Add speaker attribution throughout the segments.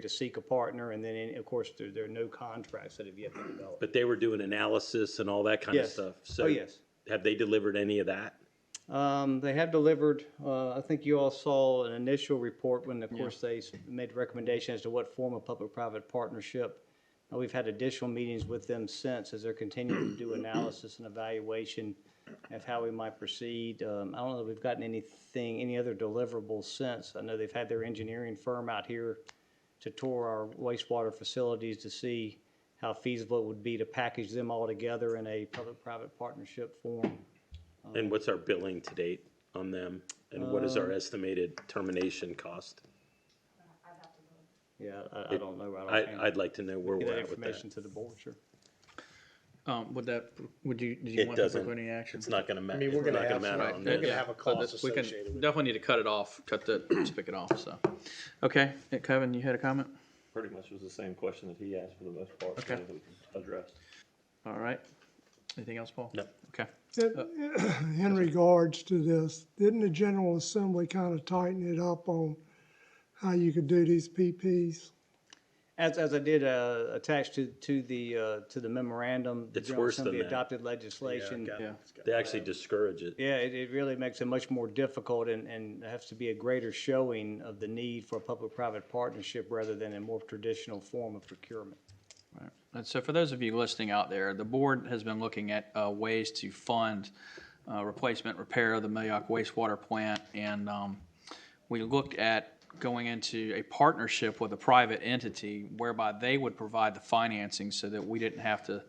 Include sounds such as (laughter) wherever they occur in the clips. Speaker 1: to seek a partner, and then, of course, there, there are no contracts that have yet been developed.
Speaker 2: But they were doing analysis and all that kind of
Speaker 1: Yes.
Speaker 2: stuff.
Speaker 1: Oh,
Speaker 2: So
Speaker 1: yes.
Speaker 2: have they delivered any of that?
Speaker 1: Um, they have delivered, uh, I think you all saw an initial report when, of course, they s- made recommendation as to what form of public-private partnership. Uh, we've had additional meetings with them since as they're continuing to do analysis and evaluation of how we might proceed. Um, I don't know that we've gotten anything, any other deliverables since. I know they've had their engineering firm out here to tour our wastewater facilities to see how feasible it would be to package them all together in a public-private partnership form.
Speaker 2: And what's our billing to date on them? And what is our estimated termination cost?
Speaker 1: Yeah, I, I don't know. I don't.
Speaker 2: I,
Speaker 1: handle-
Speaker 2: I'd like to know where
Speaker 1: Get
Speaker 2: we're
Speaker 1: that
Speaker 2: at with that.
Speaker 1: information to the board, sure.
Speaker 3: Um, would that, would you, do you
Speaker 2: It
Speaker 3: want to
Speaker 2: doesn't,
Speaker 3: put any action?
Speaker 2: it's not gonna matter.
Speaker 4: I mean, we're gonna have some-
Speaker 2: matter on
Speaker 4: we're gonna
Speaker 2: this.
Speaker 4: have
Speaker 3: So
Speaker 4: a cost
Speaker 3: that- we can
Speaker 4: associated with it.
Speaker 3: Definitely need to cut it off, cut the (clears throat) spigot off, so. Okay, uh, Kevin, you had a comment?
Speaker 5: pretty much was the same question that he asked for the most part. so
Speaker 3: Okay.
Speaker 5: it was Addressed.
Speaker 3: All right. Anything else, Paul?
Speaker 2: No.
Speaker 3: Okay.
Speaker 6: (clears throat) in regards to this, didn't the General Assembly kind of tighten it up on how you could do these PPs?
Speaker 1: As, as I did, uh, attach to, to the, uh, to the memorandum. the
Speaker 2: It's
Speaker 1: General
Speaker 2: worse than
Speaker 1: Assembly
Speaker 2: that.
Speaker 1: Adopted legislation.
Speaker 3: Yeah.
Speaker 2: They actually discourage it.
Speaker 1: Yeah, it, it really makes it much more difficult and, and there has to be a greater showing of the need for a public-private partnership rather than a more traditional form of procurement.
Speaker 3: And so for those of you listening out there, the board has been looking at uh, ways to fund uh, replacement, repair of the Millioc wastewater plant. And um, we looked at going into a partnership with a private entity whereby they would provide the financing so that we didn't have to,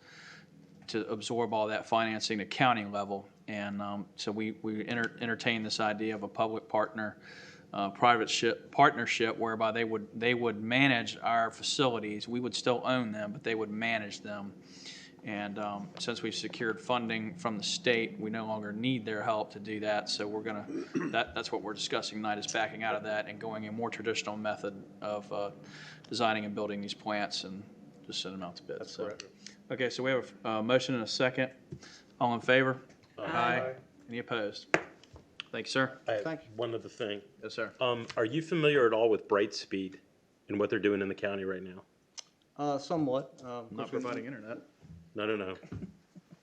Speaker 3: to absorb all that financing at county level. And um, so we, we enter- entertained this idea of a public partner, uh, private ship, partnership whereby they would, they would manage our facilities. We would still own them, but they would manage them. And um, since we've secured funding from the state, we no longer need their help to do that. So we're gonna, that, that's what we're discussing tonight, is backing out of that and going a more traditional method of uh, designing and building these plants and just send them out to bid. That's correct. Okay, so we have a uh, motion and a second. All in favor? Aye. Any opposed? Thank you, sir.
Speaker 2: I have
Speaker 1: Thank you.
Speaker 2: one other thing.
Speaker 3: Yes, sir.
Speaker 2: Um, are you familiar at all with Brightspeed and what they're doing in the county right now?
Speaker 1: Uh, somewhat, um.
Speaker 3: Not providing internet.
Speaker 2: No, no, no.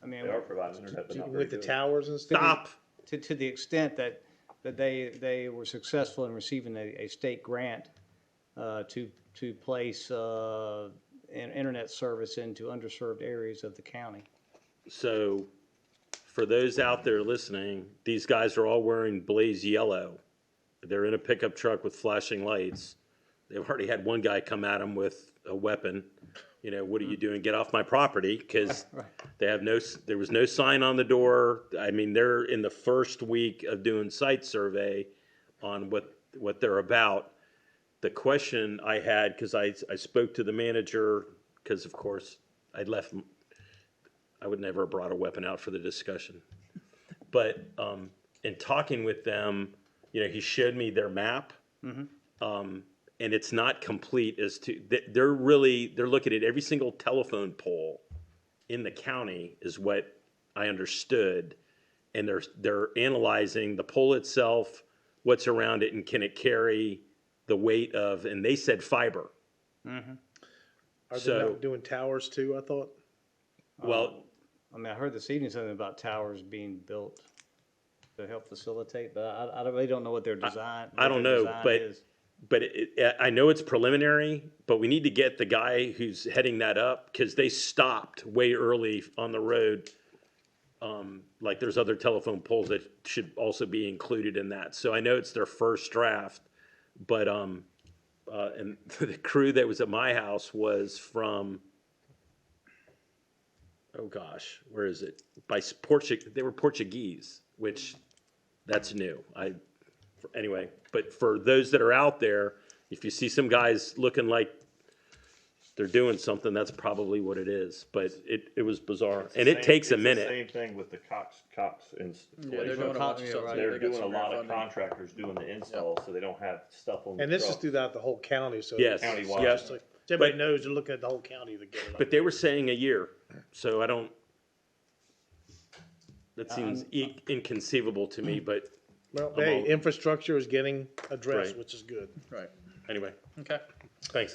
Speaker 1: I mean,
Speaker 5: They are providing internet, but not very
Speaker 4: With the
Speaker 5: good.
Speaker 4: towers and stuff.
Speaker 2: Stop.
Speaker 1: to, to the extent that, that they, they were successful in receiving a, a state grant uh, to, to place uh, an internet service into underserved areas of the county.
Speaker 2: So for those out there listening, these guys are all wearing blaze yellow. They're in a pickup truck with flashing lights. They've already had one guy come at them with a weapon. You know, what are you doing? Get off my property because they have no, s- there was no sign on the door. I mean, they're in the first week of doing site survey on what, what they're about. The question I had, because I, I spoke to the manager, because of course I left I would never have brought a weapon out for the discussion. But um, in talking with them, you know, he showed me their map, um, and it's not complete as to they, they're really they're looking at every single telephone pole in the county is what I understood, and they're they're analyzing the pole itself, what's around it, and can it carry the weight of, and they said fiber.
Speaker 4: Are they
Speaker 2: So-
Speaker 4: not doing towers too, I thought?
Speaker 2: Well,
Speaker 1: I mean, I heard this evening something about towers being built to help facilitate, but I, I really don't know what their design.
Speaker 2: I don't
Speaker 1: what their
Speaker 2: know,
Speaker 1: design
Speaker 2: but-
Speaker 1: is.
Speaker 2: but it, it- I know it's preliminary, but we need to get the guy who's heading that up because they stopped way early on the road. Um, like there's other telephone poles that should also be included in that. So I know it's their first draft, but um, uh, and (laughs) the crew that was at my house was from. Oh gosh, where is it? By s- Portu- they were Portuguese, which that's new. I anyway, but for those that are out there, if you see some guys looking like they're doing something, that's probably what it is. But it, it was bizarre, and it
Speaker 5: Same-
Speaker 2: takes a
Speaker 5: it's the
Speaker 2: minute.
Speaker 5: Same thing with the Cox, Cox
Speaker 1: doing
Speaker 5: installation.
Speaker 1: a-
Speaker 5: They're doing a lot of contractors doing the installs, so they don't have stuff on the
Speaker 4: And this is
Speaker 5: truck.
Speaker 4: throughout the whole county, so.
Speaker 2: Yes,
Speaker 4: it's
Speaker 2: Countywide.
Speaker 4: just like- so Everybody
Speaker 2: But-
Speaker 4: knows, they're looking at the whole county to get it.
Speaker 2: But they were saying a year, so I don't. That seems e- inconceivable to me, but
Speaker 4: Well, hey,
Speaker 2: all-
Speaker 4: infrastructure is getting addressed,
Speaker 2: Right.
Speaker 4: which is good.
Speaker 3: Right.
Speaker 2: anyway,
Speaker 3: Okay.
Speaker 2: thanks.